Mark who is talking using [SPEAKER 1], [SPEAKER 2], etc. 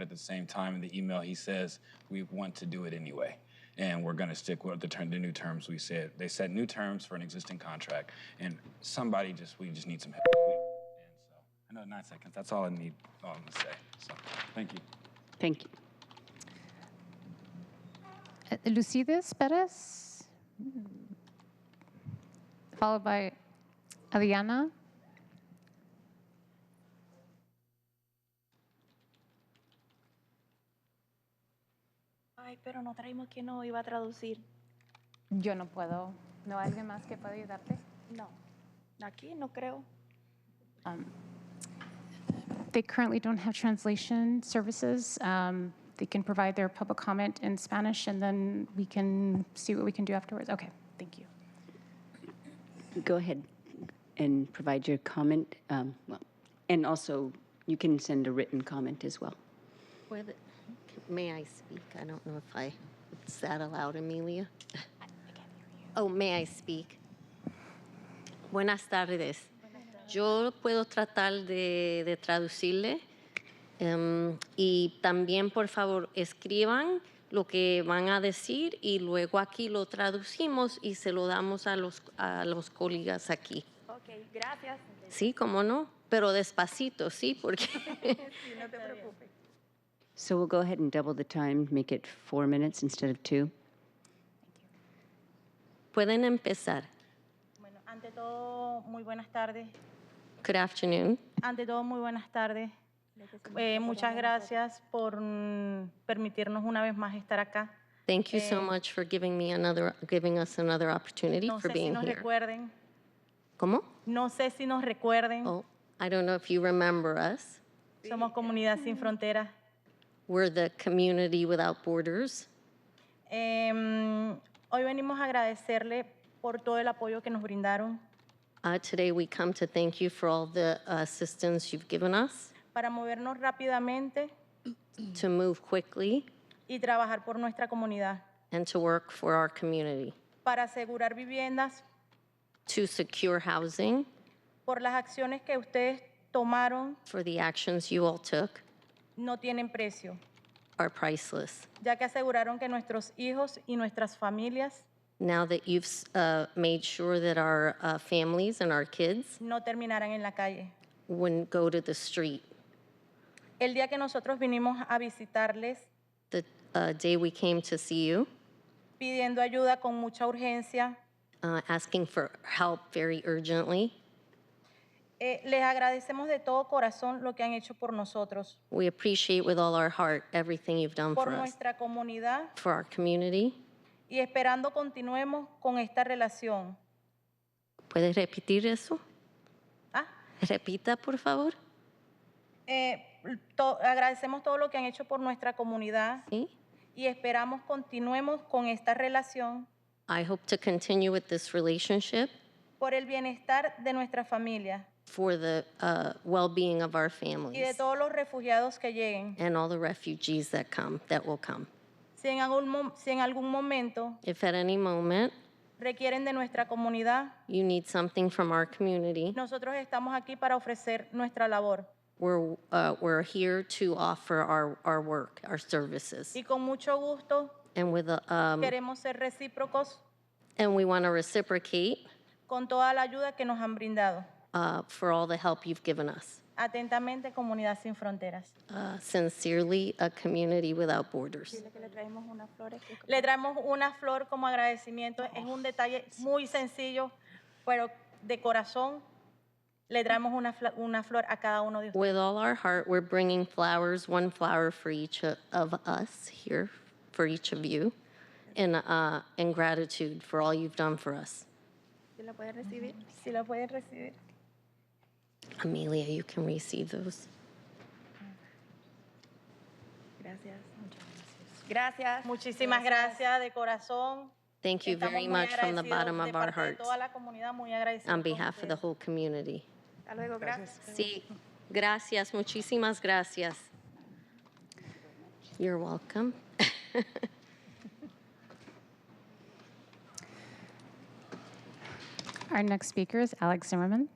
[SPEAKER 1] at the same time in the email he says we want to do it anyway and we're going to stick with the, term, the new terms we said they set new terms for an existing contract and somebody just we just need some help and so i know nine seconds that's all i need all i'm going to say so thank you
[SPEAKER 2] Thank you. Uh, Lucides Perez, Hmm. followed by Adriana.
[SPEAKER 3] Ay, pero no traímos que no iba a traducir.
[SPEAKER 2] Yo no puedo. ¿No hay alguien más que pueda ayudarte?
[SPEAKER 3] No. Aquí no creo.
[SPEAKER 2] They currently don't have translation services. Um, They can provide their public comment in Spanish, and then we can see what we can do afterwards. Okay, thank you.
[SPEAKER 4] Go ahead and provide your comment. um, well, And also, you can send a written comment as well.
[SPEAKER 5] Whether- May I speak? I don't know if I, is that allowed, Amelia? Oh, may I speak? Buenas tardes. Yo puedo tratar de, de traducirle. em, y también, por favor, escriban lo que van a decir y luego aquí lo traducimos y se lo damos a los, a los colegas aquí.
[SPEAKER 3] Ok, gracias.
[SPEAKER 5] Sí, cómo no, pero despacito, sí, porque
[SPEAKER 3] no te preocupes.
[SPEAKER 4] So we'll go ahead and double the time, make it four minutes instead of two.
[SPEAKER 5] pueden empezar.
[SPEAKER 3] Bueno, ante todo, muy buenas tardes.
[SPEAKER 5] Good afternoon.
[SPEAKER 3] Ante todo, muy buenas tardes. Eh, muchas gracias por mm, permitirnos una vez más estar acá.
[SPEAKER 5] Thank you so much for giving me another, giving us another opportunity
[SPEAKER 3] No
[SPEAKER 5] for
[SPEAKER 3] sé si
[SPEAKER 5] being
[SPEAKER 3] nos
[SPEAKER 5] here.
[SPEAKER 3] recuerden.
[SPEAKER 5] ¿Cómo?
[SPEAKER 3] No sé si nos recuerden.
[SPEAKER 5] Oh, I don't know if you remember us.
[SPEAKER 3] Somos Comunidad Sin Fronteras.
[SPEAKER 5] We're the community without borders.
[SPEAKER 3] Em, hoy venimos a agradecerle por todo el apoyo que nos brindaron
[SPEAKER 5] Uh, today we come to thank you for all the assistance you've given us
[SPEAKER 3] para movernos rápidamente
[SPEAKER 5] to move quickly
[SPEAKER 3] y trabajar por nuestra comunidad,
[SPEAKER 5] and to work for our community,
[SPEAKER 3] para asegurar viviendas
[SPEAKER 5] to secure housing
[SPEAKER 3] por las acciones que ustedes tomaron
[SPEAKER 5] for the actions you all took
[SPEAKER 3] no tienen precio,
[SPEAKER 5] are priceless.
[SPEAKER 3] ya que aseguraron que nuestros hijos y nuestras familias
[SPEAKER 5] Now that you've uh, made sure that our uh, families and our kids
[SPEAKER 3] no terminarán en la calle.
[SPEAKER 5] wouldn't go to the street
[SPEAKER 3] El día que nosotros vinimos a visitarles
[SPEAKER 5] the uh, day we came to see you,
[SPEAKER 3] pidiendo ayuda con mucha urgencia,
[SPEAKER 5] uh, asking for help very urgently.
[SPEAKER 3] eh, les agradecemos de todo corazón lo que han hecho por nosotros,
[SPEAKER 5] We appreciate with all our heart everything you've done
[SPEAKER 3] por
[SPEAKER 5] for us,
[SPEAKER 3] nuestra comunidad
[SPEAKER 5] for our community.
[SPEAKER 3] y esperando continuemos con esta relación.
[SPEAKER 5] ¿Puedes repetir eso?
[SPEAKER 3] Ah,
[SPEAKER 5] Repita, por favor.
[SPEAKER 3] eh, to- agradecemos todo lo que han hecho por nuestra comunidad
[SPEAKER 5] Sí.
[SPEAKER 3] y esperamos continuemos con esta relación
[SPEAKER 5] I hope to continue with this relationship
[SPEAKER 3] por el bienestar de nuestra familia
[SPEAKER 5] for the uh, well-being of our
[SPEAKER 3] y de
[SPEAKER 5] families
[SPEAKER 3] todos los refugiados que lleguen.
[SPEAKER 5] and all the refugees that come, that will come.
[SPEAKER 3] Si en algún, mo- si en algún momento
[SPEAKER 5] If at any moment
[SPEAKER 3] requieren de nuestra comunidad,
[SPEAKER 5] you need something from our community,
[SPEAKER 3] nosotros estamos aquí para ofrecer nuestra labor
[SPEAKER 5] we're, uh, we're here to offer our, our work, our services.
[SPEAKER 3] y con mucho gusto
[SPEAKER 5] And with, uh, um,
[SPEAKER 3] queremos ser recíprocos
[SPEAKER 5] And we want to reciprocate
[SPEAKER 3] con toda la ayuda que nos han brindado.
[SPEAKER 5] uh, for all the help you've given us.
[SPEAKER 3] Atentamente, Comunidad Sin Fronteras.
[SPEAKER 5] Uh, Sincerely, a community without borders.
[SPEAKER 3] Le traemos una flor como agradecimiento. Es un detalle muy sencillo, pero de corazón le traemos una, fla- una flor a cada uno de ustedes.
[SPEAKER 5] With all our heart, we're bringing flowers, one flower for each o- of us here, for each of you, and, uh, and gratitude for all you've done for us.
[SPEAKER 3] Si la pueden recibir.
[SPEAKER 5] Amelia, you can receive those.
[SPEAKER 3] Gracias. Muchísimas gracias de corazón.
[SPEAKER 5] Thank you
[SPEAKER 3] Estamos
[SPEAKER 5] very
[SPEAKER 3] muy
[SPEAKER 5] much from the
[SPEAKER 3] agradecidos
[SPEAKER 5] bottom
[SPEAKER 3] de
[SPEAKER 5] of our
[SPEAKER 3] parte de
[SPEAKER 5] hearts
[SPEAKER 3] toda la comunidad, muy agradecidos
[SPEAKER 5] on
[SPEAKER 3] con
[SPEAKER 5] behalf of the
[SPEAKER 3] ustedes.
[SPEAKER 5] whole community.
[SPEAKER 3] Hasta luego, gracias.
[SPEAKER 5] Sí, gracias, muchísimas gracias. You're welcome.
[SPEAKER 2] Our next speaker is Alex Zimmerman.